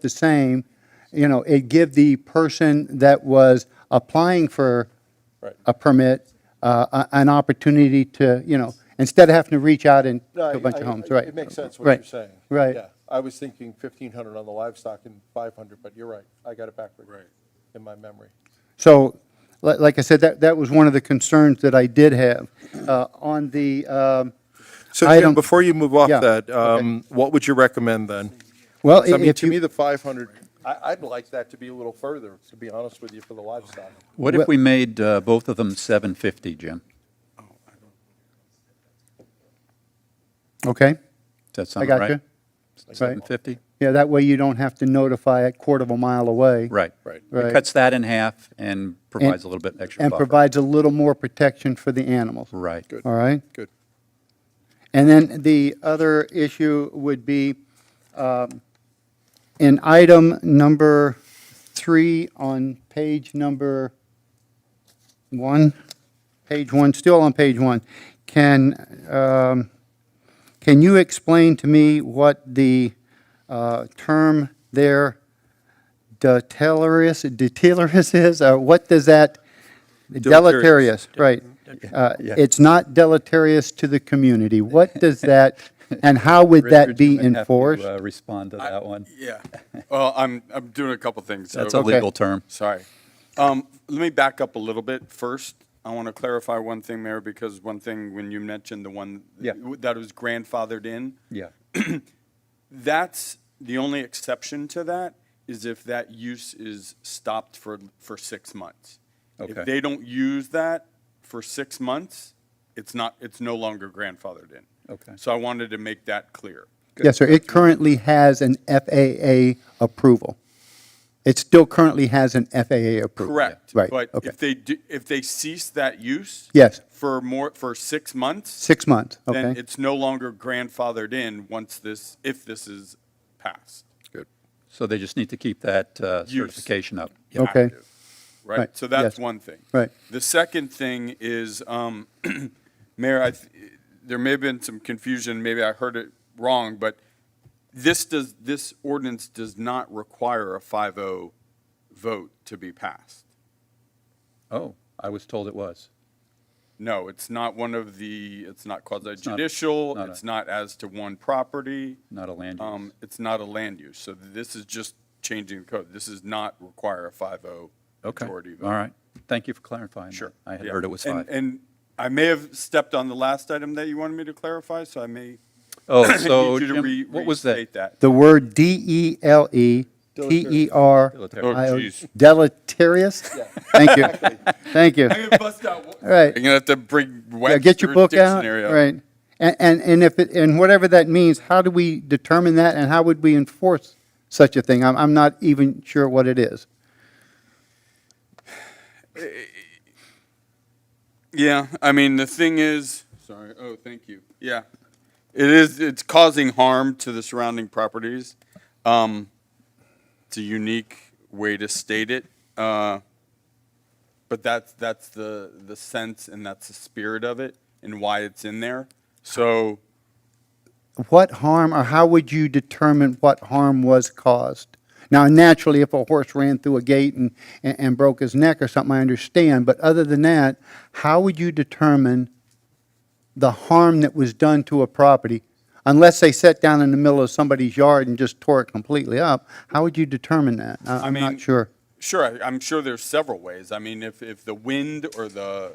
the same, you know, it give the person that was applying for Right. a permit uh, a- an opportunity to, you know, instead of having to reach out and No, to a I- bunch of I- homes, I- right? It makes sense what Right. you're saying. Right. Yeah, I was thinking 1,500 on the livestock and 500, but you're right, I got it backward. Right. In my memory. So, li- like I said, that, that was one of the concerns that I did have. Uh, On the, um, So I Jim, don't- before you move off Yeah, that, okay. um, what would you recommend then? well, I mean, if to me, you, the 500, I, I'd like that to be a little further, to be honest with you, for the livestock. What if we made uh, both of them 750, Jim? okay, Does that I sound right? got you. Right. 750? Yeah, that way you don't have to notify a quarter of a mile away. Right. Right. Right. It cuts that in half and provides a little bit extra And buffer. provides a little more protection for the animals. Right. Good. All right? good. And then the other issue would be um, in item number three on page number one, page one, still on page one, can, um, can you explain to me what the uh, term there, deleterious, deleterious is? Uh, What does that, Deleterious. deleterious, right. Uh, Yeah. It's not deleterious to the community. What does that, and how would that Richard, you be might have to, enforced? uh, Respond to that one. Yeah. Well, I'm, I'm doing a couple things. so- That's a legal term. Sorry. Um, let me back up a little bit first. I want to clarify one thing, Mayor, because one thing, when you mentioned the one Yeah. that was grandfathered in, Yeah. that's, the only exception to that is if that use is stopped for, for six months. Okay. If they don't use that for six months, it's not, it's no longer grandfathered in. Okay. So I wanted to make that clear. Yes, sir. It currently has an FAA approval. It still currently has an FAA approval. Correct. Right, But okay. if they, do- if they cease that use. Yes. For more, for six months, Six months, then okay? it's no longer grandfathered in once this, if this is passed. So they just need to keep that uh, Use. certification up. Yeah. Okay. Active, Right, Right? So that's yes. one thing. Right. The second thing is, um, Mayor, I, th- there may have been some confusion, maybe I heard it wrong, but this does, this ordinance does not require a 5-0 vote to be passed. Oh, I was told it was. No, it's not one of the, it's not quasi not- judicial, not a- it's not as to one property, Not a land use. um, it's not a land use. So this is just changing the code. This does not require a 5-0 Okay. majority vote. All right. Thank you for clarifying. that. Sure. I had yeah. heard it was And- five. And I may have stepped on the last item that you wanted me to clarify, so I may Oh, so need you to re- Jim, what was that? restate that. The word E D-E-L-E-T-E-R. Deleterious. Oh, geez. Deleterious? Thank you, thank you. I'm gonna bust out. All right. You're gonna have to bring Yeah, get your Webster's book out, dictionary up. right. And, and, and if, it- and whatever that means, how do we determine that and how would we enforce such a thing? I'm, I'm not even sure what it is. Yeah, I mean, the thing is, sorry, oh, thank you. Yeah. It is, it's causing harm to the surrounding properties. Um, it's a unique way to state it. Uh, but that's, that's the, the sense and that's the spirit of it and why it's in there. So What harm, or how would you determine what harm was caused? Now, naturally, if a horse ran through a gate and, and, and broke his neck or something, I understand, but other than that, how would you determine the harm that was done to a property? Unless they sat down in the middle of somebody's yard and just tore it completely up, how would you determine that? I- I I'm mean, not sure. Sure, I- I'm sure there's several ways. I mean, if, if the wind or the,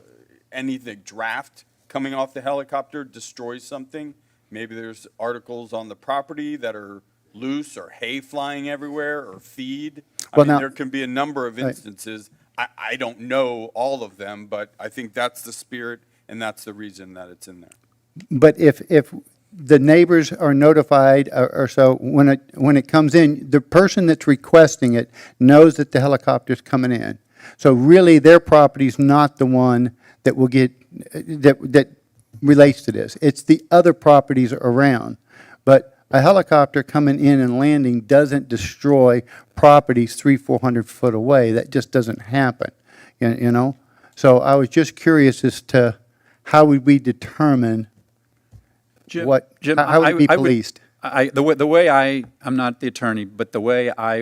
anything, draft coming off the helicopter destroys something, maybe there's articles on the property that are loose or hay flying everywhere or feed. I Well, mean, now- there can be a number of instances. I, I don't know all of them, but I think that's the spirit and that's the reason that it's in there. But if, if the neighbors are notified or or so, when it, when it comes in, the person that's requesting it knows that the helicopter's coming in. So really, their property's not the one that will get, that, that relates to this. It's the other properties around. But a helicopter coming in and landing doesn't destroy properties three, 400 foot away. That just doesn't happen, you you know? So I was just curious as to how would we determine Jim- what, Jim, how I- would it be I policed? I, the way, the way I, I'm not the attorney, but the way I